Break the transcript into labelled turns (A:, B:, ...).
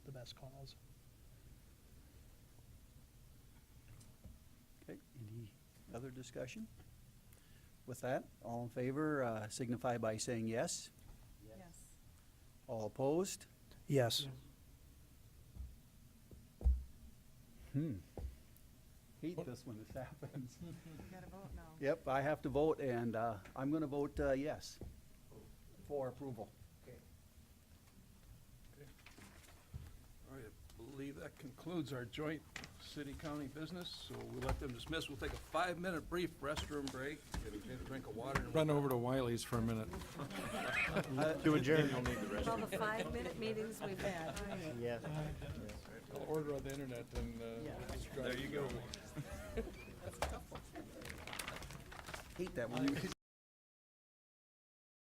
A: best cause.
B: Okay, any other discussion? With that, all in favor, uh, signify by saying yes.
C: Yes.
B: All opposed?
A: Yes.
B: Hmm. Hate this when this happens.
C: We gotta vote now.
B: Yep, I have to vote, and uh, I'm gonna vote uh, yes for approval.
D: All right, I believe that concludes our joint city-county business, so we'll let them dismiss. We'll take a five-minute brief restroom break, get a- get a drink of water. and-
E: Run over to Wiley's for a minute.
F: To adjourn.
C: All the five-minute meetings we've had.
F: Yes.
E: I'll order on the internet and, uh,
D: There you go.
B: Hate that when you